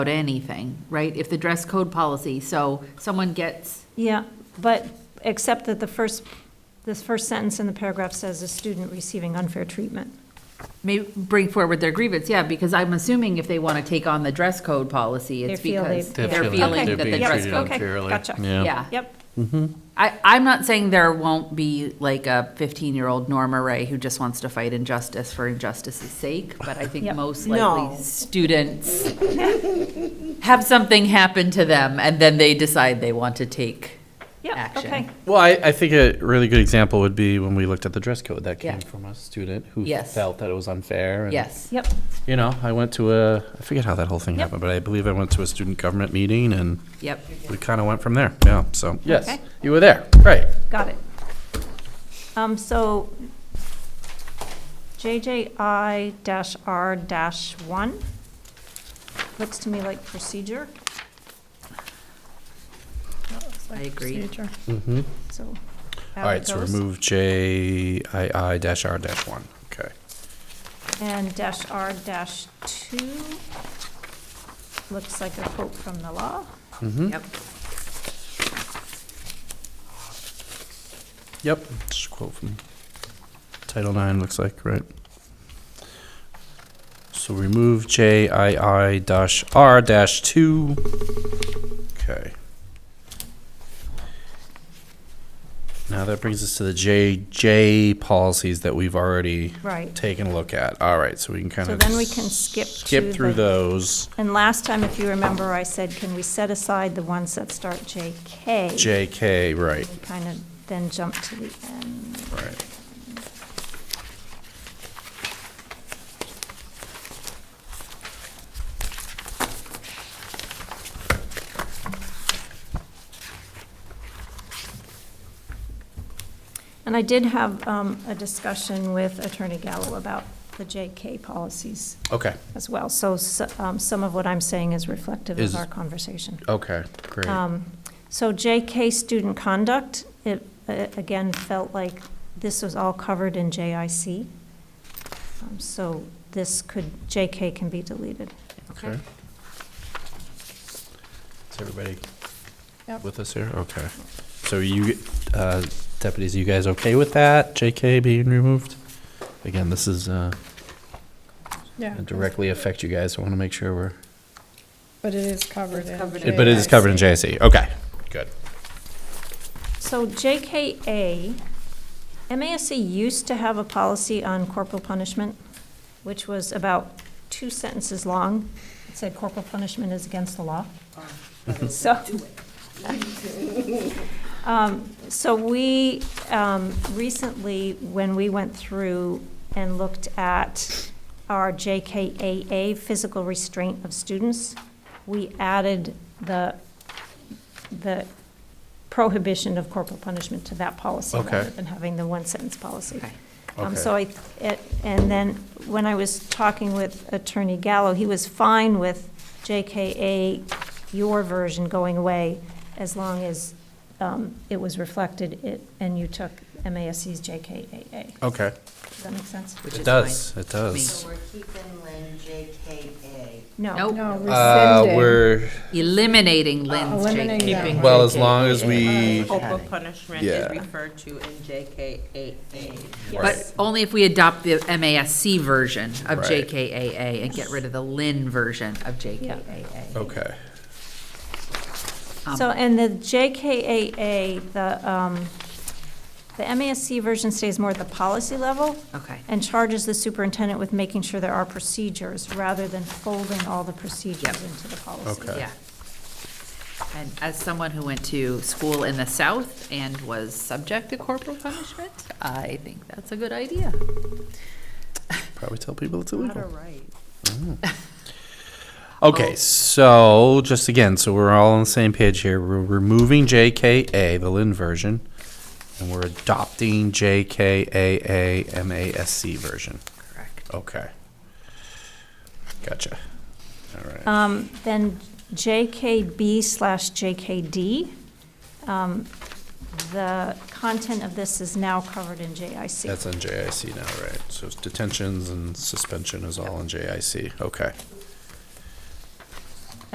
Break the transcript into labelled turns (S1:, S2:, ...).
S1: about anything, right? If the dress code policy, so someone gets,
S2: Yeah, but, except that the first, this first sentence in the paragraph says a student receiving unfair treatment.
S1: may bring forward their grievance, yeah, because I'm assuming if they want to take on the dress code policy, it's
S2: They feel they-
S1: because
S2: They're
S1: they're
S2: feeling
S1: feeling
S2: they're
S1: that the
S2: being
S1: dress
S2: treated
S1: code.
S2: okay, gotcha.
S1: Yeah.
S2: Yep,
S1: I, I'm not saying there won't be like a 15-year-old Norma Ray who just wants to fight injustice for injustice's sake, but I think
S2: Yep.
S1: most
S3: No.
S1: likely students have something happen to them, and then they decide they want to take
S2: yep,
S1: Action.
S2: okay.
S4: Well, I, I think a really good example would be when we looked at the dress code that came
S1: Yeah.
S4: from a student who
S1: Yes.
S4: felt that it was unfair. And,
S1: Yes.
S2: Yep,
S4: You know, I went to a, I forget how that whole thing
S2: Yep.
S4: happened, but I believe I went to a student government meeting and
S1: Yep.
S4: we kind of went from there. Yeah. So, yes,
S2: Okay.
S4: you were there. Right.
S2: got it. Um, so JJI dash R dash one, looks to me like procedure. That looks like
S1: I agree.
S2: procedure,
S4: Mm-hmm.
S2: So.
S4: All right. So remove JII dash R dash 1. Okay.
S2: And dash R dash two, looks like a quote from the law.
S4: Mm-hmm.
S1: Yep.
S4: Yep. Just a quote from Title IX, looks like, right? So remove JII dash R dash two. Okay. Now that brings us to the JJ policies that we've already
S2: Right.
S4: taken a look at. All right, so we can kind
S2: So
S4: of.
S2: then we can skip to
S4: Skip through
S2: the-
S4: those.
S2: And last time, if you remember, I said, can we set aside the ones that start JK?
S4: JK, right,
S2: We kind of then jump to the end.
S4: right.
S2: And I did have um, a discussion with Attorney Gallo about the JK policies
S4: Okay,
S2: as well. So s- um, some of what I'm saying is reflective
S4: Is-
S2: of our conversation.
S4: okay, great.
S2: Um, So JK student conduct, it, uh, again, felt like this was all covered in JIC. Um, So this could, JK can be deleted.
S4: Okay. Is everybody with us here? Okay. So you, uh, deputies, you guys okay with that, JK being removed? Again, this is, uh,
S5: Yeah,
S4: directly affect you guys, so I want to make sure we're.
S5: but it is covered in.
S4: But it is covered in JIC, okay, good.
S2: So JKA, MASC used to have a policy on corporal punishment, which was about two sentences long. It said corporal punishment is against the law. So. Um, So we, um, recently, when we went through and looked at our JKAA, physical restraint of students, we added the, the prohibition of corporal punishment to that policy.
S4: Okay.
S2: Rather than having the one-sentence policy.
S1: Okay.
S2: Um,
S4: Okay.
S2: So I, it- and then when I was talking with Attorney Gallo, he was fine with JKA, your version going away, as long as um, it was reflected it- and you took MASC's JKAA.
S4: Okay.
S2: Does that make sense?
S1: Which
S4: It
S1: is
S4: does,
S1: fine.
S4: it does.
S6: So we're keeping Lynn JKA.
S2: No.
S1: Nope.
S5: No,
S4: Uh,
S5: rescinding.
S4: we're,
S1: Eliminating Lynn's
S5: Uh, eliminating that
S1: JK.
S5: one.
S4: well, as long as we,
S6: Corporal punishment
S4: Yeah.
S6: is referred to in JKAA.
S1: But only if we adopt the MASC version of
S4: Right.
S1: JKAA and get rid of the Lynn version of JKAA.
S4: okay,
S1: Um,
S2: So, and the JKAA, the, um, the MASC version stays more at the policy level
S1: Okay.
S2: and charges the superintendent with making sure there are procedures rather than folding all the procedures
S1: Yep.
S2: into the policy.
S4: Okay.
S1: Yeah. And as someone who went to school in the South and was subject to corporal punishment, I think that's a good idea.
S4: probably tell people it's
S6: Not a
S4: illegal.
S6: right.
S4: Okay, so just again, so we're all on the same page here. We're removing JKA, the Lynn version, and we're adopting JKAA MASC version.
S1: Correct.
S4: Okay. Gotcha. All right.
S2: Um, Then JKB slash JKD, um, the content of this is now covered in JIC.
S4: That's on JIC now, right? So it's detentions and suspension is all on JIC. Okay.